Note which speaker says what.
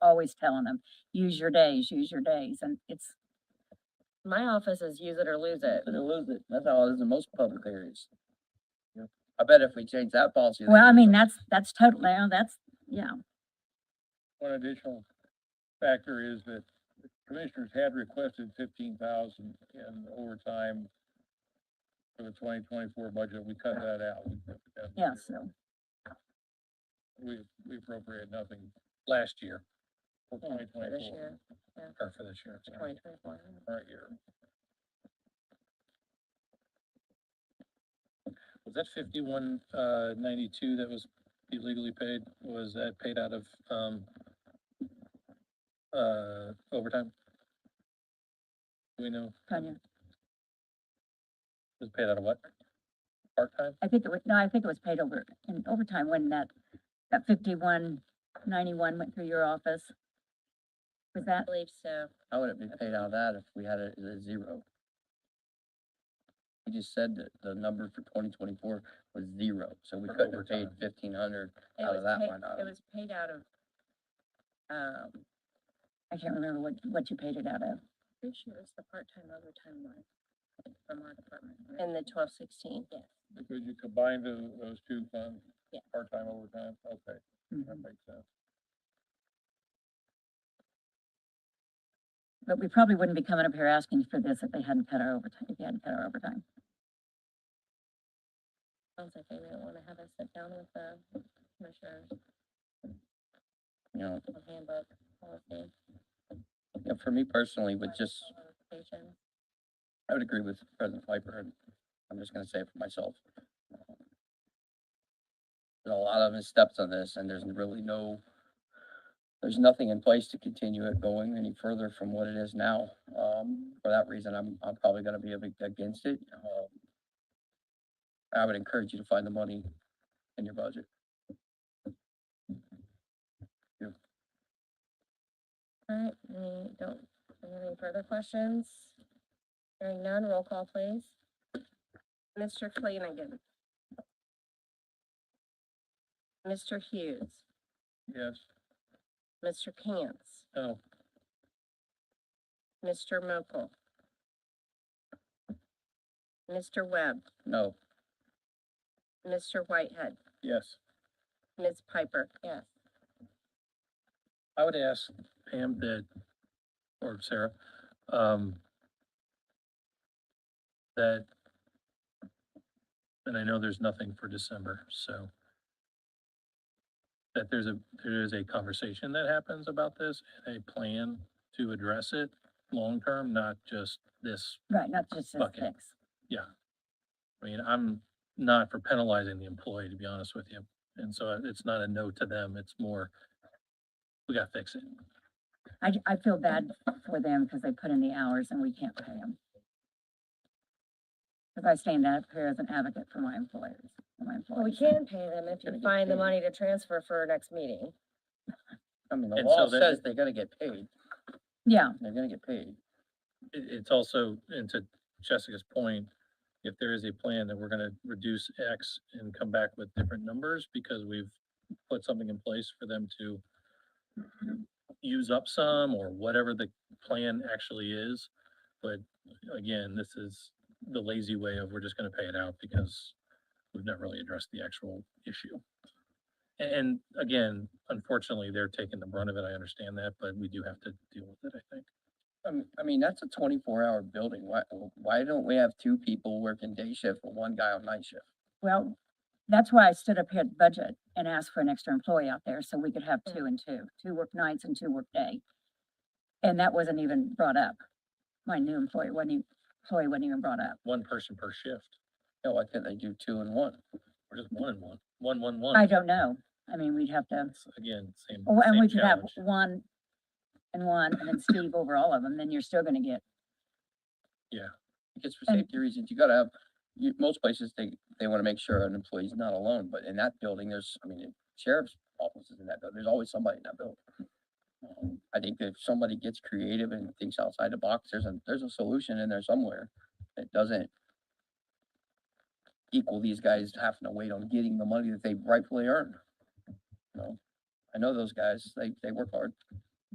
Speaker 1: always telling them, use your days, use your days, and it's, my office is use it or lose it.
Speaker 2: They lose it. That's how it is in most public areas. You know, I bet if we change that policy.
Speaker 1: Well, I mean, that's, that's totally, that's, yeah,
Speaker 3: One additional factor is that the commissioners had requested fifteen thousand in overtime for the twenty twenty-four budget, we cut that out. We cut that out.
Speaker 1: yeah, so,
Speaker 3: We, we appropriated nothing last year for twenty twenty-four.
Speaker 1: year, yeah.
Speaker 3: Or for this year, sorry,
Speaker 1: twenty twenty-four.
Speaker 3: current year.
Speaker 4: Was that fifty-one, uh, ninety-two that was illegally paid, was that paid out of, um, uh, overtime? Do we know,
Speaker 1: Tanya,
Speaker 4: was it paid out of what? Part-time?
Speaker 1: I think it was, no, I think it was paid over in overtime when that, that fifty-one ninety-one went through your office. Was that?
Speaker 5: believe so.
Speaker 2: How would it be paid out of that if we had it at a zero? You just said that the number for twenty twenty-four was zero, so we
Speaker 3: For
Speaker 2: couldn't have paid
Speaker 3: overtime.
Speaker 2: fifteen hundred
Speaker 5: It
Speaker 2: out
Speaker 5: was
Speaker 2: of that
Speaker 5: paid,
Speaker 2: line
Speaker 5: it
Speaker 2: item.
Speaker 5: was paid out of, um,
Speaker 1: I can't remember what, what you paid it out of.
Speaker 5: pretty sure it was the part-time overtime line from our department. In the twelve sixteen? Yes.
Speaker 3: Because you combined tho- those two funds,
Speaker 5: Yeah.
Speaker 3: part-time overtime, okay, that
Speaker 1: Mhm.
Speaker 3: makes sense.
Speaker 1: But we probably wouldn't be coming up here asking for this if they hadn't cut our overtime, if you hadn't cut our overtime.
Speaker 5: Sounds like they didn't wanna have us sit down with the commissioners
Speaker 2: You know,
Speaker 5: on handbook policy.
Speaker 2: Yeah, for me personally, with just,
Speaker 5: clarification.
Speaker 2: I would agree with President Piper, and I'm just gonna say it for myself. There's a lot of his steps on this, and there's really no, there's nothing in place to continue it going any further from what it is now. Um, for that reason, I'm, I'm probably gonna be a bit against it. Um, I would encourage you to find the money in your budget.
Speaker 5: All right, we don't, do we have any further questions? Hearing none, roll call please. Mr. Flanagan. Mr. Hughes.
Speaker 3: Yes,
Speaker 5: Mr. Cantz.
Speaker 4: No.
Speaker 5: Mr. Mokel. Mr. Webb,
Speaker 2: No,
Speaker 5: Mr. Whitehead,
Speaker 4: Yes.
Speaker 5: Ms. Piper. Yes.
Speaker 4: I would ask Pam that, or Sarah, um, that, and I know there's nothing for December, so that there's a, there is a conversation that happens about this and a plan to address it long-term, not just this.
Speaker 1: Right, not just this
Speaker 4: Bucket.
Speaker 1: fix.
Speaker 4: I mean, I'm not for penalizing the employee, to be honest with you. And so it's not a no to them, it's more, we gotta fix it.
Speaker 1: I, I feel bad for them because they put in the hours and we can't pay them. Because I stand up here as an advocate for my employers, for my
Speaker 5: Well, we
Speaker 1: employees.
Speaker 5: can pay them if you
Speaker 2: Gotta get
Speaker 5: find the
Speaker 2: paid.
Speaker 5: money to transfer for our next meeting.
Speaker 2: I mean, the
Speaker 4: And so
Speaker 2: law
Speaker 4: that-
Speaker 2: says they gotta get paid,
Speaker 1: Yeah,
Speaker 2: they're gonna get paid.
Speaker 4: it, it's also, and to Jessica's point, if there is a plan that we're gonna reduce X and come back with different numbers because we've put something in place for them to use up some or whatever the plan actually is. But again, this is the lazy way of we're just gonna pay it out because we've not really addressed the actual issue. A- And again, unfortunately, they're taking the brunt of it. I understand that, but we do have to deal with it, I think.
Speaker 2: Um, I mean, that's a twenty-four hour building. Why, why don't we have two people working day shift and one guy on night shift?
Speaker 1: Well, that's why I stood up here at budget and asked for an extra employee out there so we could have two and two, two work nights and two work day. And that wasn't even brought up. My new employee wasn't, e- employee wasn't even brought up.
Speaker 4: One person per shift.
Speaker 2: No, why can't they do two and one?
Speaker 4: Or just one and one, one, one, one.
Speaker 1: I don't know. I mean, we'd have to,
Speaker 4: It's, Again, same,
Speaker 1: oh, and
Speaker 4: same
Speaker 1: we could have
Speaker 4: challenge.
Speaker 1: one and one and then Steve over all of them, then you're still gonna get,
Speaker 2: Because for
Speaker 1: And-
Speaker 2: safety reasons, you gotta have, you, most places, they, they wanna make sure an employee's not alone, but in that building, there's, I mean, sheriff's offices in that building, there's always somebody in that building. Um, I think that if somebody gets creative and thinks outside the box, there's a, there's a solution in there somewhere that doesn't equal these guys having to wait on getting the money that they rightfully earned. You know, I know those guys, they, they work hard.